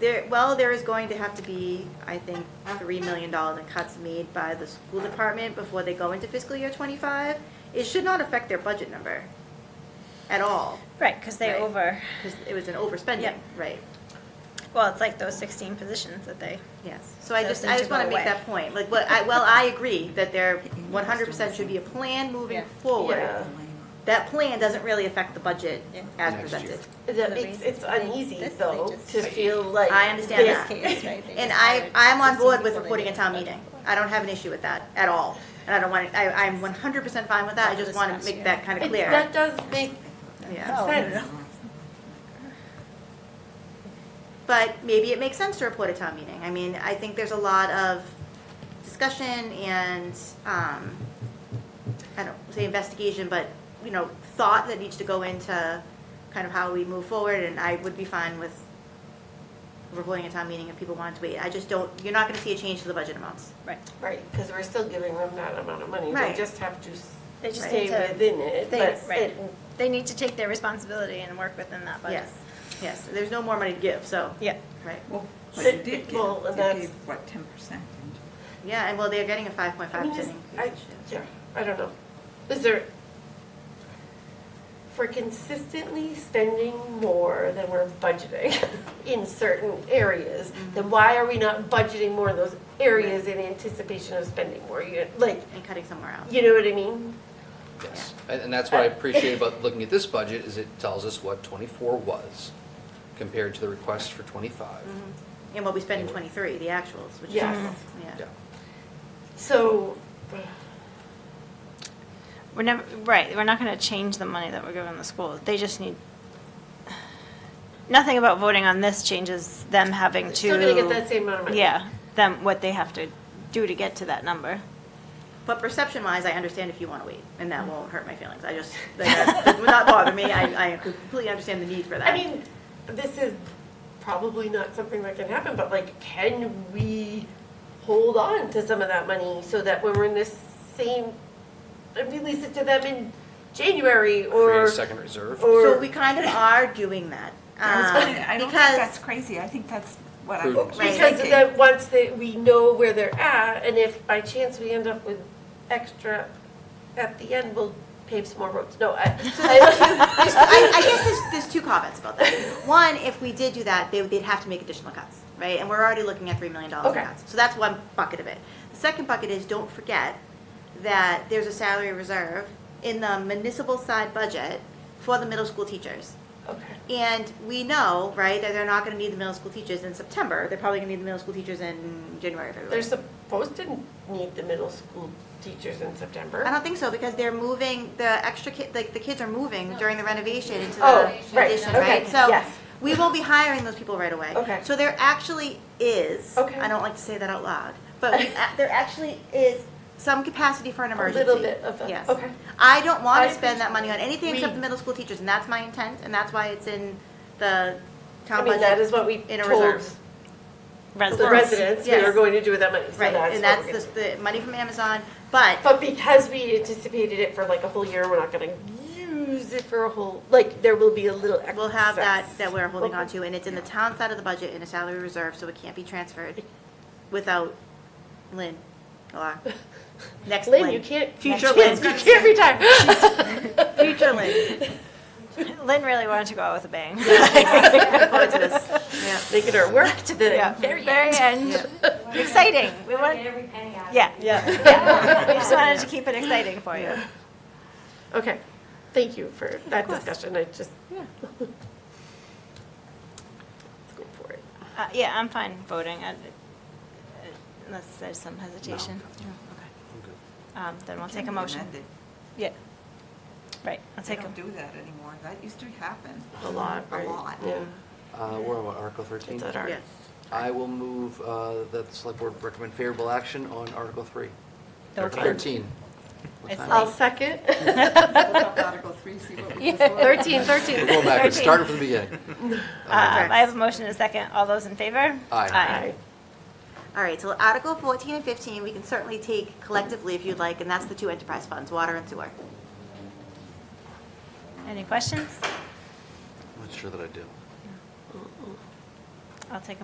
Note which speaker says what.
Speaker 1: There, well, there is going to have to be, I think, three million dollars in cuts made by the school department before they go into fiscal year twenty-five. It should not affect their budget number at all,
Speaker 2: Right, because they
Speaker 1: Right.
Speaker 2: over,
Speaker 1: because it was an overspending,
Speaker 2: Yep.
Speaker 1: right?
Speaker 2: well, it's like those 16 positions that they,
Speaker 1: Yes, so I
Speaker 2: Those
Speaker 1: just,
Speaker 2: need
Speaker 1: I
Speaker 2: to
Speaker 1: just wanna
Speaker 2: go
Speaker 1: make
Speaker 2: away.
Speaker 1: that point, like, what, I, well, I agree that there one hundred percent should be a plan moving
Speaker 2: Yeah.
Speaker 1: forward.
Speaker 3: Yeah.
Speaker 1: That plan doesn't really affect the budget
Speaker 2: Yeah.
Speaker 1: as
Speaker 4: Next year.
Speaker 1: presented.
Speaker 2: The
Speaker 3: The- It's,
Speaker 2: reason
Speaker 3: it's
Speaker 2: they-
Speaker 3: uneasy
Speaker 2: this they
Speaker 3: though,
Speaker 2: just-
Speaker 3: to feel like.
Speaker 1: I understand
Speaker 3: this
Speaker 1: that.
Speaker 2: case, right? They
Speaker 1: And
Speaker 2: just
Speaker 1: I,
Speaker 2: hired
Speaker 1: I'm on
Speaker 2: 16
Speaker 1: board with
Speaker 2: people they
Speaker 1: reporting a
Speaker 2: didn't
Speaker 1: town
Speaker 2: budget
Speaker 1: meeting.
Speaker 2: for.
Speaker 1: I don't have an issue with that at all. And I don't want, I, I'm one hundred percent fine with that, I just wanna make that kinda
Speaker 3: It-
Speaker 1: clear.
Speaker 3: That does make
Speaker 1: Yeah.
Speaker 2: Oh.
Speaker 3: sense.
Speaker 1: But maybe it makes sense to report at town meeting. I mean, I think there's a lot of discussion and, um, I don't say investigation, but, you know, thought that needs to go into kind of how we move forward, and I would be fine with reporting at town meeting if people wanted to wait. I just don't, you're not gonna see a change to the budget amounts.
Speaker 2: right,
Speaker 3: Right, because we're still giving them that amount of money. They
Speaker 1: Right.
Speaker 3: just have to s-
Speaker 2: They just
Speaker 3: stay
Speaker 2: need to-
Speaker 3: within it,
Speaker 2: they-
Speaker 3: but
Speaker 2: right.
Speaker 3: it-
Speaker 2: they need to take their responsibility and work within that budget.
Speaker 1: Yes, yes, there's no more money to give, so,
Speaker 2: Yeah,
Speaker 1: right.
Speaker 5: Well, but
Speaker 3: But-
Speaker 5: you did give,
Speaker 3: well,
Speaker 5: you
Speaker 3: that's-
Speaker 5: gave, what, ten percent? Uh,
Speaker 1: Yeah, and well, they're getting a five point
Speaker 3: I
Speaker 1: five
Speaker 3: mean,
Speaker 1: percent
Speaker 3: is,
Speaker 1: increase
Speaker 3: I,
Speaker 1: this year.
Speaker 3: yeah, I don't know. Is there, for consistently spending more than we're budgeting in certain areas, then why are we not budgeting more in those areas in anticipation of spending more? You- Like,
Speaker 1: And cutting somewhere else.
Speaker 3: you know what I mean?
Speaker 4: Yes, and and that's what I appreciate about looking at this budget, is it tells us what twenty-four was compared to the request for twenty-five.
Speaker 1: And what we spend in twenty-three, the actuals, which is,
Speaker 3: Yes.
Speaker 1: yeah.
Speaker 4: Yeah,
Speaker 3: So,
Speaker 2: we're never, right, we're not going to change the money that we're giving the schools. They just need, nothing about voting on this changes them having to.
Speaker 3: still gonna get that same amount of money.
Speaker 2: Yeah, them, what they have to do to get to that number.
Speaker 1: But perception-wise, I understand if you want to wait, and that won't hurt my feelings. I just, that that would not bother me. I, I completely understand the need for that.
Speaker 3: I mean, this is probably not something that can happen, but like, can we hold on to some of that money so that when we're in this same, and release it to them in January
Speaker 4: create
Speaker 3: or,
Speaker 4: a second reserve.
Speaker 1: So
Speaker 3: or,
Speaker 1: we kind of are doing that.
Speaker 5: I was
Speaker 1: um,
Speaker 5: gonna- I don't think
Speaker 1: because-
Speaker 5: that's crazy, I think that's what I
Speaker 4: Prudent.
Speaker 5: was
Speaker 3: because
Speaker 5: thinking.
Speaker 3: then once they, we know where they're at, and if by chance we end up with extra at the end, we'll pave some more roads. No, I, I,
Speaker 1: There's- I, I guess there's, there's two comments about that. One, if we did do that, they, would- they'd have to make additional cuts, right? And we're already looking at three million dollars in
Speaker 3: Okay.
Speaker 1: cuts. So that's one bucket of it. The second bucket is, don't forget that there's a salary reserve in the municipal side budget for the middle school teachers.
Speaker 3: okay.
Speaker 1: And we know, right, that they're not gonna need the middle school teachers in September, they're probably gonna need the middle school teachers in January, February.
Speaker 3: They're supposed to need the middle school teachers in
Speaker 1: I
Speaker 3: September.
Speaker 1: don't think so, because they're moving, the extra kid, like, the kids are moving during the renovation into
Speaker 3: Oh,
Speaker 1: the
Speaker 3: right,
Speaker 1: addition,
Speaker 3: okay,
Speaker 1: right? So,
Speaker 3: yes.
Speaker 1: we won't be hiring those people right away.
Speaker 3: Okay.
Speaker 1: So there actually is,
Speaker 3: Okay.
Speaker 1: I don't like to say that out loud, but we- there actually is some capacity for an
Speaker 3: A
Speaker 1: emergency.
Speaker 3: little bit of,
Speaker 1: Yes.
Speaker 3: a- okay.
Speaker 1: I don't want
Speaker 3: I
Speaker 1: to spend that money on anything
Speaker 3: We-
Speaker 1: except the middle school teachers, and that's my intent, and that's why it's in the
Speaker 3: I
Speaker 1: town budget.
Speaker 3: mean, that is what we
Speaker 1: in a
Speaker 3: told
Speaker 1: reserve.
Speaker 3: the residents we
Speaker 1: Yes.
Speaker 3: were going to do with that money. So
Speaker 1: Right,
Speaker 3: that's
Speaker 1: and
Speaker 3: what
Speaker 1: that's
Speaker 3: we're
Speaker 1: the,
Speaker 3: gonna do.
Speaker 1: the money from Amazon, but,
Speaker 3: But because we anticipated it for like a whole year, we're not gonna use it for a whole, like, there will be a little excess.
Speaker 1: we'll have that, that we're holding on to, and it's in the town side of the budget in a salary reserve, so it can't be transferred without Lynn, or next Lynn.
Speaker 3: Lynn, you can't.
Speaker 1: Future
Speaker 3: you
Speaker 1: Lynn.
Speaker 3: can't- You can't retire.
Speaker 1: Future Lynn.
Speaker 2: Lynn really wanted to go out with a bang.
Speaker 1: Look forward to this. Yeah.
Speaker 3: Making her work to the
Speaker 2: Yeah,
Speaker 3: very end.
Speaker 2: very end. Exciting. We want,
Speaker 6: Get every penny out of it.
Speaker 2: yeah. Yeah. We just wanted to keep it exciting for you.
Speaker 3: Okay, thank you for that discussion, I just. Let's go for it.
Speaker 2: Uh, yeah, I'm fine voting. I- Unless there's some hesitation.
Speaker 4: I'm good.
Speaker 2: Um, then we'll
Speaker 5: It
Speaker 2: take
Speaker 5: can
Speaker 2: a
Speaker 5: be
Speaker 2: motion.
Speaker 5: amended.
Speaker 2: Yeah. Right, I'll
Speaker 5: They
Speaker 2: take a,
Speaker 5: don't do that anymore, that used to happen.
Speaker 3: A lot,
Speaker 5: A
Speaker 3: right?
Speaker 5: lot.
Speaker 3: Yeah,
Speaker 4: Uh, we're on what, Article thirteen?
Speaker 3: it's at our.
Speaker 1: Yes.
Speaker 4: I will move uh, that the select board recommend favorable action on Article three. Article
Speaker 2: Okay.
Speaker 4: thirteen. What
Speaker 2: It's
Speaker 4: time
Speaker 3: I'll
Speaker 4: is
Speaker 3: second.
Speaker 5: Look up Article three, see what we just voted.
Speaker 3: Thirteen,
Speaker 4: it? We're
Speaker 3: thirteen.
Speaker 4: going backwards,
Speaker 2: 13.
Speaker 4: starting from the beginning. Um,
Speaker 2: uh, I have a motion and a second. All those in favor?
Speaker 4: Aye.
Speaker 3: Aye.
Speaker 1: All right, so Article 14 and 15, we can certainly take collectively if you'd like, and that's the two enterprise funds, water and sewer.
Speaker 2: Any questions?
Speaker 4: I'm not sure that I do.
Speaker 2: I'll take a